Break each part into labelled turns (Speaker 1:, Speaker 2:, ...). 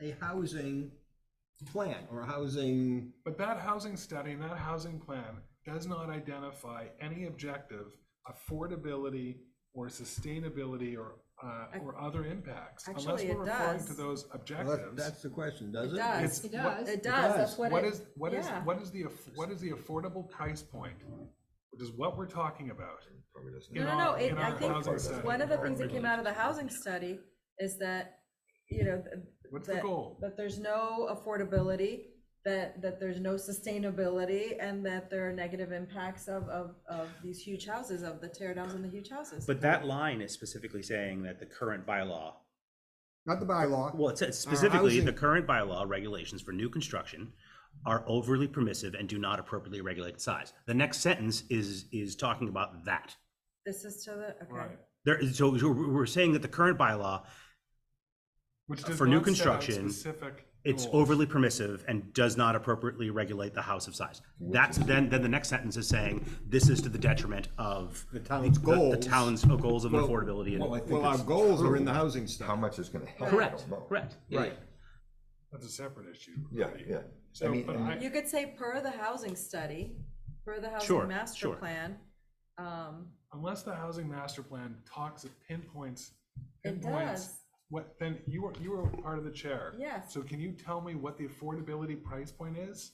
Speaker 1: a housing plan or a housing,
Speaker 2: But that housing study and that housing plan does not identify any objective affordability or sustainability or, uh, or other impacts. Unless
Speaker 3: Actually, it
Speaker 2: we're referring to
Speaker 3: does.
Speaker 2: those
Speaker 1: Well, that-
Speaker 2: objectives.
Speaker 1: that's the question, does
Speaker 3: It
Speaker 1: it?
Speaker 3: does.
Speaker 2: It does.
Speaker 3: It does, that's what it.
Speaker 2: What is, what is,
Speaker 3: yeah.
Speaker 2: what is the, aff- what is the affordable price point? Which is what we're talking about.
Speaker 4: Probably doesn't.
Speaker 2: in
Speaker 3: No, no, no,
Speaker 2: our-
Speaker 3: it,
Speaker 2: in
Speaker 3: I
Speaker 2: our
Speaker 3: think
Speaker 2: housing study.
Speaker 3: one of the things that came out of the housing study is that, you know, th-
Speaker 2: What's the
Speaker 3: that-
Speaker 2: goal?
Speaker 3: That there's no affordability, that, that there's no sustainability, and that there are negative impacts of, of, of these huge houses, of the tear downs and the huge houses.
Speaker 5: But that line is specifically saying that the current bylaw,
Speaker 6: Not the bylaw.
Speaker 5: well, it says specifically, the
Speaker 6: housing-
Speaker 5: current bylaw regulations for new construction are overly permissive and do not appropriately regulate size. The next sentence is, is talking about that.
Speaker 3: This is to the, okay.
Speaker 2: Right.
Speaker 5: There is, so so we're we're saying that the current bylaw,
Speaker 2: Which does
Speaker 5: For new
Speaker 2: not set out
Speaker 5: construction,
Speaker 2: specific
Speaker 5: it's
Speaker 6: Oh.
Speaker 2: goals.
Speaker 5: overly permissive and does not appropriately regulate the house of size. That's, then, then the next sentence is saying, this is to the detriment of.
Speaker 6: The town's
Speaker 5: the- The
Speaker 6: goals.
Speaker 5: town's uh, goals of affordability
Speaker 4: Well, I
Speaker 5: and,
Speaker 4: think
Speaker 6: Well, our
Speaker 4: it's
Speaker 6: goals are in the
Speaker 4: true.
Speaker 6: housing
Speaker 4: How
Speaker 6: stuff.
Speaker 4: much is gonna help? I
Speaker 5: correct,
Speaker 4: don't know.
Speaker 5: correct. Yeah,
Speaker 6: Right.
Speaker 2: That's a separate issue.
Speaker 4: Yeah,
Speaker 2: really.
Speaker 4: yeah. I
Speaker 2: So,
Speaker 4: mean,
Speaker 2: but
Speaker 4: and-
Speaker 2: I,
Speaker 3: You could say per the housing study, per the
Speaker 5: Sure,
Speaker 3: housing master
Speaker 5: sure.
Speaker 3: plan. Um,
Speaker 2: unless the housing master plan talks, it pinpoints,
Speaker 3: It
Speaker 2: pinpoints
Speaker 3: does.
Speaker 2: what, then you were, you were part of the chair.
Speaker 3: Yes.
Speaker 2: So can you tell me what the affordability price point is?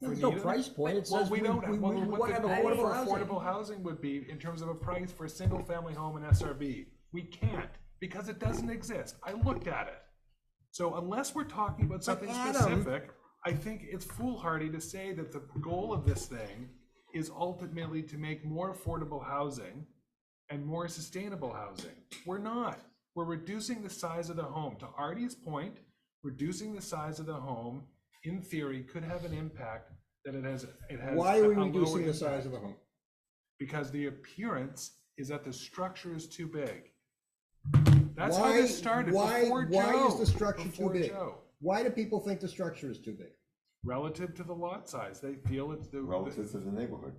Speaker 2: for
Speaker 1: There's no
Speaker 2: neither?
Speaker 1: price point, it
Speaker 2: Well,
Speaker 1: says
Speaker 2: we
Speaker 1: we,
Speaker 2: don't,
Speaker 1: we,
Speaker 2: well,
Speaker 1: we
Speaker 2: what
Speaker 1: want
Speaker 2: the
Speaker 1: to have
Speaker 2: goal
Speaker 1: affordable
Speaker 2: for
Speaker 1: housing.
Speaker 2: affordable housing would be in terms of a price for a single-family home in SRB. We can't, because it doesn't exist. I looked at it. So unless we're talking about something
Speaker 1: Adam-
Speaker 2: specific, I think it's foolhardy to say that the goal of this thing is ultimately to make more affordable housing and more sustainable housing. We're not. We're reducing the size of the home. To Artie's point, reducing the size of the home, in theory, could have an impact that it has, it has.
Speaker 6: Why are we
Speaker 2: a- a lower
Speaker 6: reducing the size of
Speaker 2: impact.
Speaker 6: a home?
Speaker 2: Because the appearance is that the structure is too big. That's how
Speaker 6: Why-
Speaker 2: this started
Speaker 6: Why,
Speaker 2: before Joe.
Speaker 6: why is the structure too
Speaker 2: before
Speaker 6: big?
Speaker 2: Joe.
Speaker 6: Why do people think the structure is too big?
Speaker 2: Relative to the lot size, they feel it's the.
Speaker 4: Relative to the neighborhood.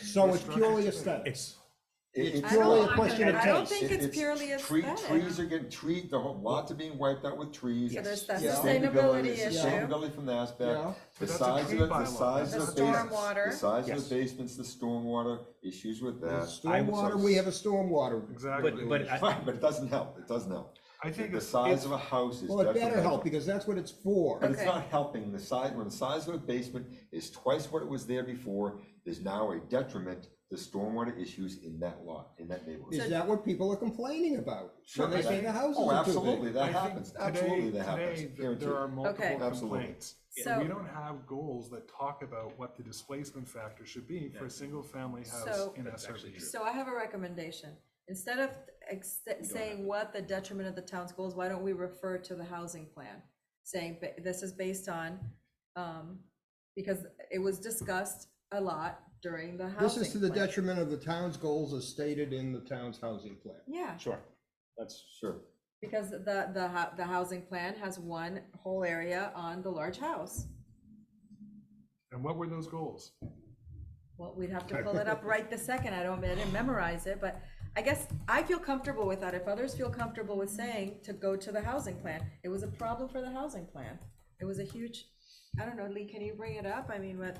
Speaker 6: So it's
Speaker 2: structure's
Speaker 6: purely
Speaker 2: too big.
Speaker 6: aesthetics.
Speaker 4: It-
Speaker 6: It's
Speaker 3: I don't-
Speaker 6: purely a
Speaker 3: I
Speaker 6: question of
Speaker 3: don't- I don't
Speaker 6: taste.
Speaker 3: think
Speaker 4: It-
Speaker 3: it's purely
Speaker 4: tree-
Speaker 3: aesthetic.
Speaker 4: Trees are getting, tree, the whole, lots are being wiped out with trees.
Speaker 3: So there's that
Speaker 4: Yeah.
Speaker 3: sustainability
Speaker 4: Yeah.
Speaker 3: issue.
Speaker 4: Sustainability from the
Speaker 6: Yeah.
Speaker 4: aspect, the
Speaker 2: But that's a
Speaker 4: size
Speaker 2: tree
Speaker 4: of, the- the
Speaker 2: bylaw.
Speaker 4: size of
Speaker 3: That's
Speaker 4: the
Speaker 3: not-
Speaker 4: basements, the
Speaker 3: Stormwater.
Speaker 4: size of
Speaker 5: Yes.
Speaker 4: the basements, the stormwater, issues with that.
Speaker 6: Stormwater, we have a stormwater.
Speaker 2: Exactly.
Speaker 5: But, but I-
Speaker 4: Right, but it doesn't help, it doesn't help.
Speaker 2: I think
Speaker 4: The
Speaker 2: it's-
Speaker 4: size
Speaker 2: it's-
Speaker 4: of a house is
Speaker 6: Well, it better help
Speaker 4: detrimental.
Speaker 6: because that's what it's for.
Speaker 4: But it's
Speaker 3: Okay.
Speaker 4: not helping, the size, when the size of a basement is twice what it was there before, there's now a detriment to stormwater issues in that lot, in that neighborhood.
Speaker 6: Is that what people are complaining about?
Speaker 4: Sure,
Speaker 6: When they say
Speaker 4: that-
Speaker 6: the houses
Speaker 4: Oh,
Speaker 6: are too
Speaker 4: absolutely,
Speaker 6: big?
Speaker 4: that
Speaker 2: I
Speaker 4: happens,
Speaker 2: think
Speaker 4: absolutely
Speaker 2: today-
Speaker 4: that happens,
Speaker 2: Today, th- there are
Speaker 4: guaranteed.
Speaker 2: multiple
Speaker 4: Absolutely.
Speaker 2: complaints.
Speaker 3: So-
Speaker 2: We don't have goals that talk about what the displacement factor should be for a single-family house
Speaker 3: So-
Speaker 2: in SRB.
Speaker 3: So I have a recommendation. Instead of ex- saying what the detriment of the town's goals, why don't we refer to the housing plan? Saying ba- this is based on, um, because it was discussed a lot during the housing.
Speaker 6: This is to the
Speaker 3: plan.
Speaker 6: detriment of the town's goals as stated in the town's housing plan.
Speaker 3: Yeah,
Speaker 5: sure, that's.
Speaker 4: Sure,
Speaker 3: because the, the, hou- the housing plan has one whole area on the large house.
Speaker 2: And what were those goals?
Speaker 3: Well, we'd have to pull it up right the second. I don't, I didn't memorize it, but I guess I feel comfortable with that. If others feel comfortable with saying to go to the housing plan, it was a problem for the housing plan. It was a huge, I don't know, Lee, can you bring it up? I mean, what,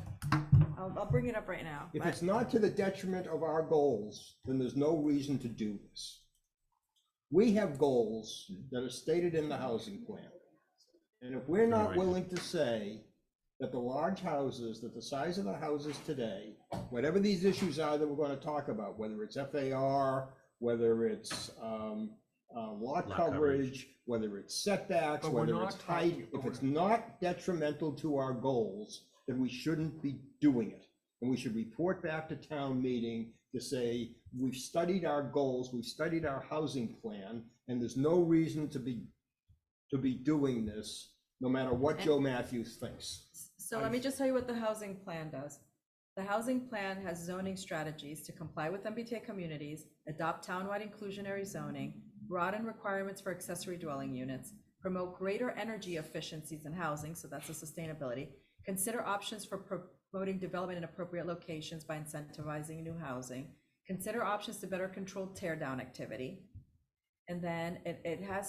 Speaker 3: I'll, I'll bring it up right now.
Speaker 6: If
Speaker 3: but-
Speaker 6: it's not to the detriment of our goals, then there's no reason to do this. We have goals that are stated in the housing plan. And if we're not willing to say that the large houses, that the size of the houses today, whatever these issues are that we're gonna talk about, whether it's FAR, whether it's, um, uh, lot
Speaker 5: Lot
Speaker 6: coverage, whether it's setbacks,
Speaker 2: But we're
Speaker 6: whether
Speaker 2: not
Speaker 6: it's height,
Speaker 2: talking- but
Speaker 6: if it's
Speaker 2: we're-
Speaker 6: not detrimental to our goals, then we shouldn't be doing it. And we should report back to town meeting to say, we've studied our goals, we've studied our housing plan, and there's no reason to be, to be doing this, no matter what Joe Matthews thinks.
Speaker 3: So let me just tell you what the housing plan does. The housing plan has zoning strategies to comply with MBTA communities, adopt townwide inclusionary zoning, broaden requirements for accessory dwelling units, promote greater energy efficiencies in housing, so that's a sustainability, consider options for promoting development in appropriate locations by incentivizing new housing, consider options to better control tear down activity. And then it, it has